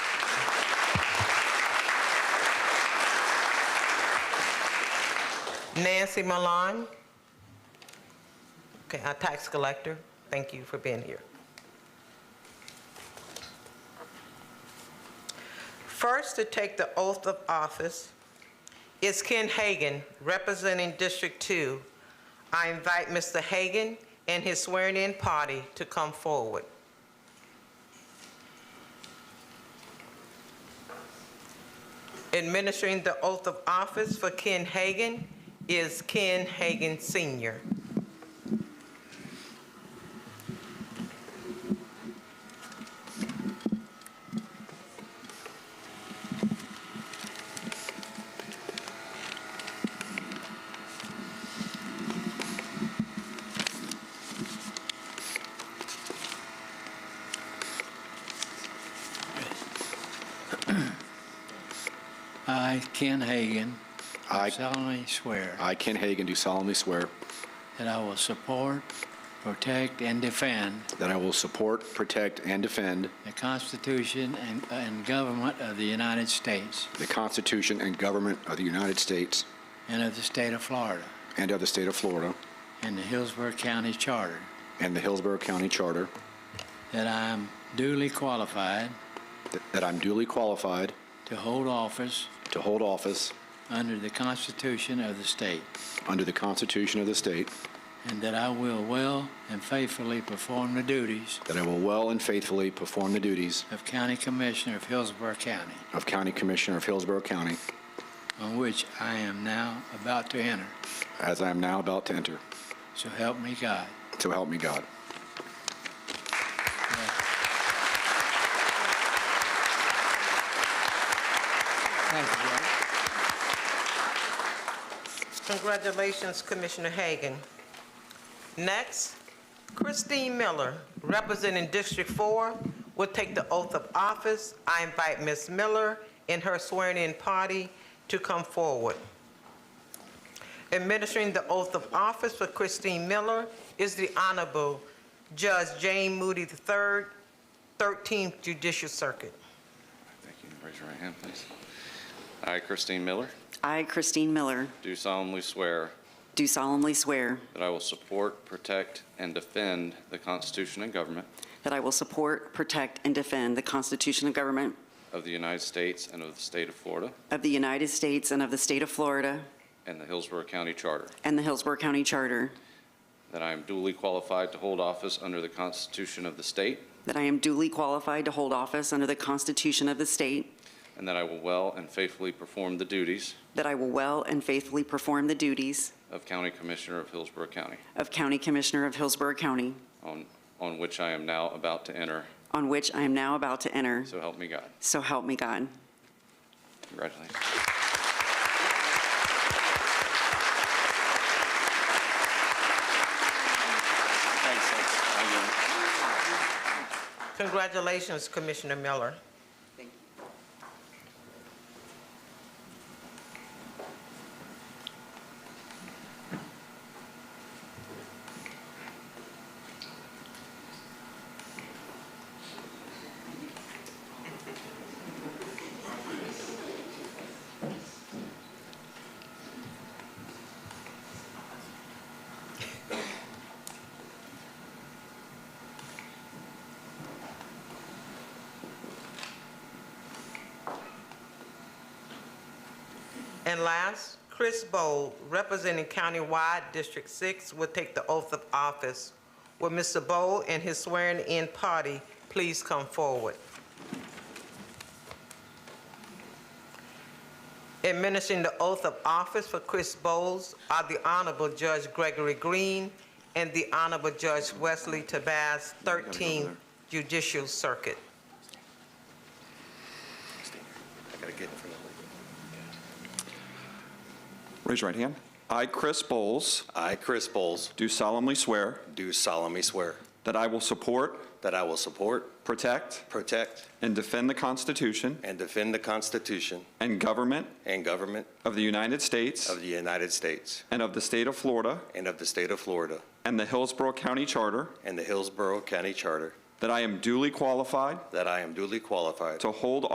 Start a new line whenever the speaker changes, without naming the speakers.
Nancy Milan. Okay, our tax collector, thank you for being here. First to take the oath of office is Ken Hagan, representing District 2. I invite Mr. Hagan and his swearing-in party to come forward. Administering the oath of office for Ken Hagan is Ken Hagan Sr.
I, Ken Hagan,
I-
solemnly swear
I, Ken Hagan, do solemnly swear
that I will support, protect, and defend
that I will support, protect, and defend
the Constitution and- and government of the United States
the Constitution and government of the United States
and of the state of Florida
and of the state of Florida
and the Hillsborough County Charter,
and the Hillsborough County Charter,
that I am duly qualified
th- that I'm duly qualified
to hold office
to hold office
under the Constitution of the state,
under the Constitution of the state,
and that I will well and faithfully perform the duties
that I will well and faithfully perform the duties
of County Commissioner of Hillsborough County,
of County Commissioner of Hillsborough County
on which I am now about to enter.
as I am now about to enter.
So help me God.
So help me God.
Thank you, Judge.
Congratulations, Commissioner Hagan. Next, Christine Miller, representing District 4, will take the oath of office. I invite Ms. Miller and her swearing-in party to come forward. Administering the oath of office for Christine Miller is the Honorable Judge Jane Moody III, 13th Judicial Circuit.
Thank you. Raise your right hand, please. I, Christine Miller,
I, Christine Miller,
do solemnly swear
do solemnly swear
that I will support, protect, and defend the Constitution and government
that I will support, protect, and defend the Constitution and government
of the United States and of the state of Florida
of the United States and of the state of Florida
and the Hillsborough County Charter,
and the Hillsborough County Charter,
that I am duly qualified to hold office under the Constitution of the state,
that I am duly qualified to hold office under the Constitution of the state,
and that I will well and faithfully perform the duties
that I will well and faithfully perform the duties
of County Commissioner of Hillsborough County,
of County Commissioner of Hillsborough County,
on, on which I am now about to enter,
on which I am now about to enter.
so help me God.
So help me God.
Congratulations.
Congratulations, Commissioner Miller.
Thank you.
And last, Chris Bold, representing countywide District 6, will take the oath of office. Will Mr. Bold and his swearing-in party please come forward? Administering the oath of office for Chris Bowles are the Honorable Judge Gregory Green and the Honorable Judge Wesley Tabaz, 13th Judicial Circuit.
Raise your right hand. I, Chris Bowles,
I, Chris Bowles,
do solemnly swear
do solemnly swear
that I will support,
that I will support,
protect,
protect,
and defend the Constitution
and defend the Constitution
and government
and government
of the United States
of the United States
and of the state of Florida
and of the state of Florida
and the Hillsborough County Charter,
and the Hillsborough County Charter,
that I am duly qualified
that I am duly qualified
to hold